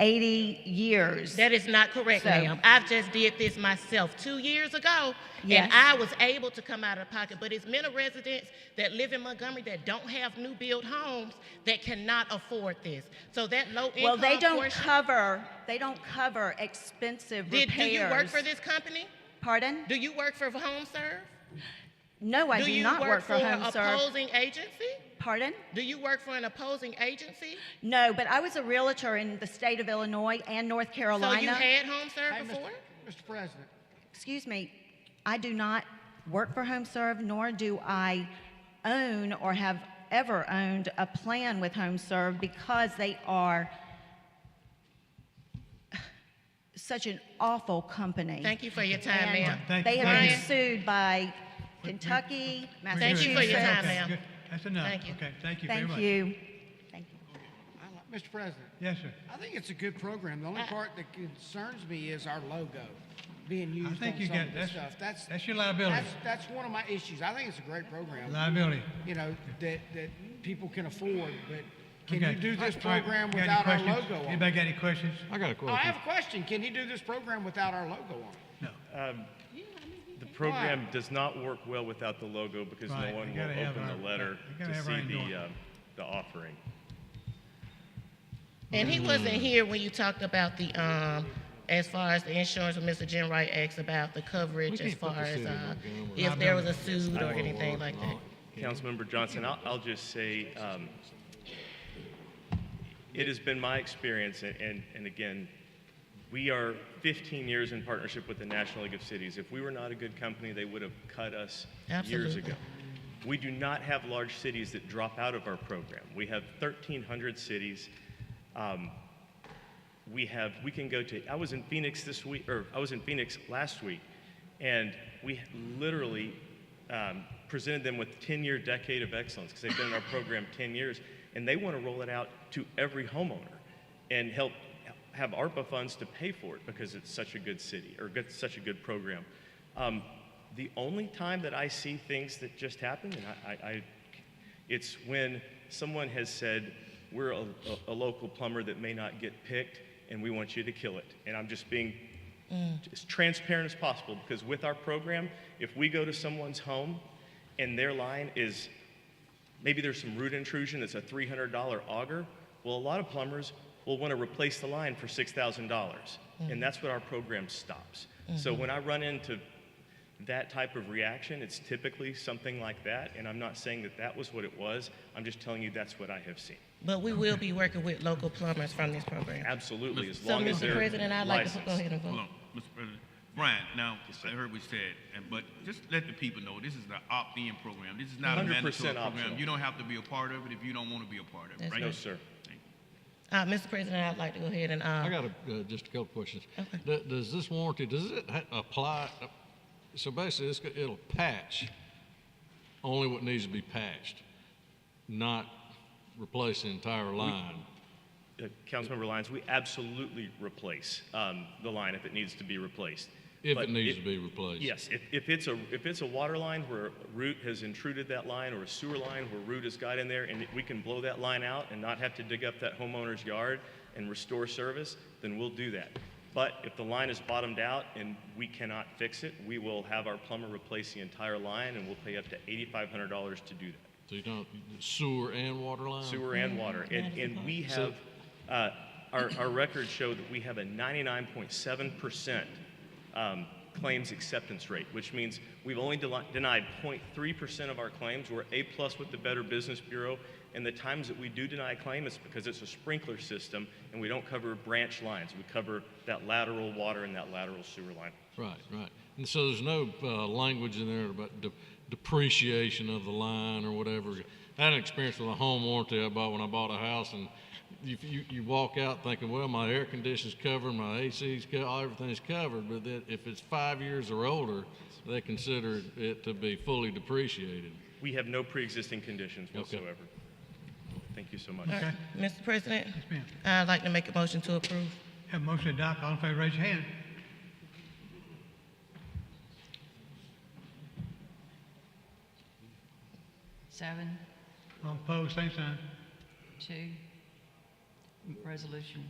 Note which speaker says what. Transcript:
Speaker 1: 80 years.
Speaker 2: That is not correct,
Speaker 1: So-
Speaker 2: ma'am. I've just did this myself two years ago,
Speaker 1: Yes.
Speaker 2: and I was able to come out of pocket. But it's many residents that live in Montgomery that don't have new build homes that cannot afford this. So that low income
Speaker 1: Well, they don't
Speaker 2: portion-
Speaker 1: cover, they don't cover expensive
Speaker 2: Did,
Speaker 1: repairs.
Speaker 2: do you work for this company?
Speaker 1: Pardon?
Speaker 2: Do you work for HomeServe?
Speaker 1: No, I do
Speaker 2: you
Speaker 1: not work for
Speaker 2: an
Speaker 1: Home Serve.
Speaker 2: opposing agency?
Speaker 1: Pardon?
Speaker 2: Do you work for an opposing agency?
Speaker 1: No, but I was a realtor in the state of Illinois and North
Speaker 2: So you
Speaker 1: Carolina.
Speaker 2: had HomeServe
Speaker 3: Hey, Mr.
Speaker 2: before?
Speaker 3: Mr. President,
Speaker 1: Excuse me, I do not work for Home Serve, nor do I own or have ever owned a plan with Home Serve because they are such an awful company.
Speaker 2: Thank you for your time,
Speaker 1: And
Speaker 2: ma'am.
Speaker 4: Thank
Speaker 1: They
Speaker 4: you.
Speaker 1: have been
Speaker 2: Brian.
Speaker 1: sued by Kentucky,
Speaker 2: Thank
Speaker 1: Massachusetts.
Speaker 2: you for your time,
Speaker 4: Okay,
Speaker 2: ma'am.
Speaker 4: good. That's enough.
Speaker 2: Thank you.
Speaker 4: Okay, thank you very
Speaker 1: Thank
Speaker 4: much.
Speaker 1: you. Thank you.
Speaker 3: I li- Mr. President,
Speaker 4: Yes, sir.
Speaker 3: I think it's a good program. The only part that concerns me is our logo being
Speaker 4: I
Speaker 3: used on
Speaker 4: think you
Speaker 3: some
Speaker 4: got,
Speaker 3: of this
Speaker 4: that's,
Speaker 3: stuff. That's,
Speaker 4: that's your liability,
Speaker 3: that's, that's one of my issues. I think it's a great program,
Speaker 4: liability.
Speaker 3: you know, that, that people can afford, but can
Speaker 4: Okay.
Speaker 3: you do this
Speaker 4: All right,
Speaker 3: program
Speaker 4: got any
Speaker 3: without our
Speaker 4: questions?
Speaker 3: logo on it?
Speaker 4: Anybody got any questions?
Speaker 5: I got a
Speaker 3: Oh, I
Speaker 5: question.
Speaker 3: have a question. Can you do this program without our logo on it?
Speaker 4: No.
Speaker 6: Uh,
Speaker 7: The program does not work well without the logo because no
Speaker 4: Right,
Speaker 7: one
Speaker 4: you
Speaker 7: will
Speaker 4: gotta have
Speaker 7: open
Speaker 4: our-
Speaker 7: the letter
Speaker 4: you gotta
Speaker 7: to
Speaker 4: have our
Speaker 7: see the,
Speaker 4: endorsement.
Speaker 7: um, the offering.
Speaker 2: And he wasn't here when you talked about the, um, as far as the insurance, when Mr. Jim Wright asked about the coverage as far as, uh, if there was a suit or anything like that.
Speaker 7: Councilmember Johnson, I'll, I'll just say, um, it has been my experience, and, and, and again, we are 15 years in partnership with the National League of Cities. If we were not a good company, they would have cut us years
Speaker 2: Absolutely.
Speaker 7: ago. We do not have large cities that drop out of our program. We have 1,300 cities. Um, we have we can go to i was in phoenix this week or i was in phoenix last week and we literally um, presented them with 10-year decade of excellence because they've been in our program 10 years and they want to roll it out to every homeowner and help have arpa funds to pay for it because it's such a good city or good, such a good program um, the only time that i see things that just happen and i, I, I it's when someone has said, We're a, a, a local plumber that may not get picked, and we want you to kill it. And I'm just being as transparent as possible because with our program, if we go to someone's home and their line is maybe there's some root intrusion that's a $300 auger, well, a lot of plumbers will want to replace the line for $6,000. dollars
Speaker 2: Mm.
Speaker 7: And that's what our program stops. So
Speaker 2: Mm-hmm.
Speaker 7: when I run into that type of reaction, it's typically something like that. And I'm not saying that that was what it was. I'm just telling you that's what I have seen.
Speaker 2: But we will be working with local plumbers from this program.
Speaker 7: Absolutely, as
Speaker 2: So,
Speaker 7: long as
Speaker 2: Mr.
Speaker 7: they're
Speaker 2: President, I'd like to
Speaker 7: licensed.
Speaker 2: go ahead and vote.
Speaker 6: Hold on, Mr. President. Brian, now, I heard what you said, and, but just let the people know, this is the opt-in program. This is not a
Speaker 7: 100%
Speaker 6: mandatory program.
Speaker 7: optional.
Speaker 6: You don't have to be a part of it if you don't want to be a part of it,
Speaker 2: That's
Speaker 6: right?
Speaker 7: No, sir.
Speaker 2: Uh, Mr. President, I'd like to go ahead and,
Speaker 5: I
Speaker 2: uh,
Speaker 6: got-
Speaker 5: got a, uh, just a couple questions.
Speaker 2: Okay.
Speaker 5: Th- Does this warranty, does it ha- apply, uh, so basically, it's, go- it'll patch only what needs to be patched, not replace the entire line?
Speaker 7: Uh, Councilmember Lyons, we absolutely replace um, the line if it needs to be replaced.
Speaker 5: If
Speaker 7: But
Speaker 5: it needs to be replaced?
Speaker 7: Yes, if, if it's a, if it's a water line where a root has intruded that line, or a sewer line where root has got in there, and we can blow that line out and not have to dig up that homeowner's yard and restore service, then we'll do that. But if the line is bottomed out and we cannot fix it, we will have our plumber replace the entire line, and we'll pay up to eighty-five hundred dollars to do that
Speaker 5: So you don't, sewer and water line?
Speaker 7: sewer and water. And, and we have, uh, our, our records show that we have a 99.7% um, claims acceptance rate, which means we've only deli- denied 0.3% of our claims. We're A-plus with the Better Business Bureau. And the times that we do deny a claim, it's because it's a sprinkler system and we don't cover branch lines. We cover that lateral water and that lateral sewer line.
Speaker 5: Right, right. And so there's no uh, language in there about de- depreciation of the line or whatever. I had an experience with a home warranty I bought when I bought a house, and you, you, you walk out thinking, well, my air conditioner's covered, my AC's covered, everything's covered. But then if it's five years or older, they consider it to be fully depreciated.
Speaker 7: We have no pre-existing conditions
Speaker 5: Okay.
Speaker 7: whatsoever. Thank you so much.
Speaker 2: Mr. President,
Speaker 4: ma'am.
Speaker 2: I'd like to make a motion to approve.
Speaker 4: Have a motion to adopt. All in favor, raise your hand.
Speaker 8: Seven,
Speaker 4: All opposed, same sign.
Speaker 8: two, resolution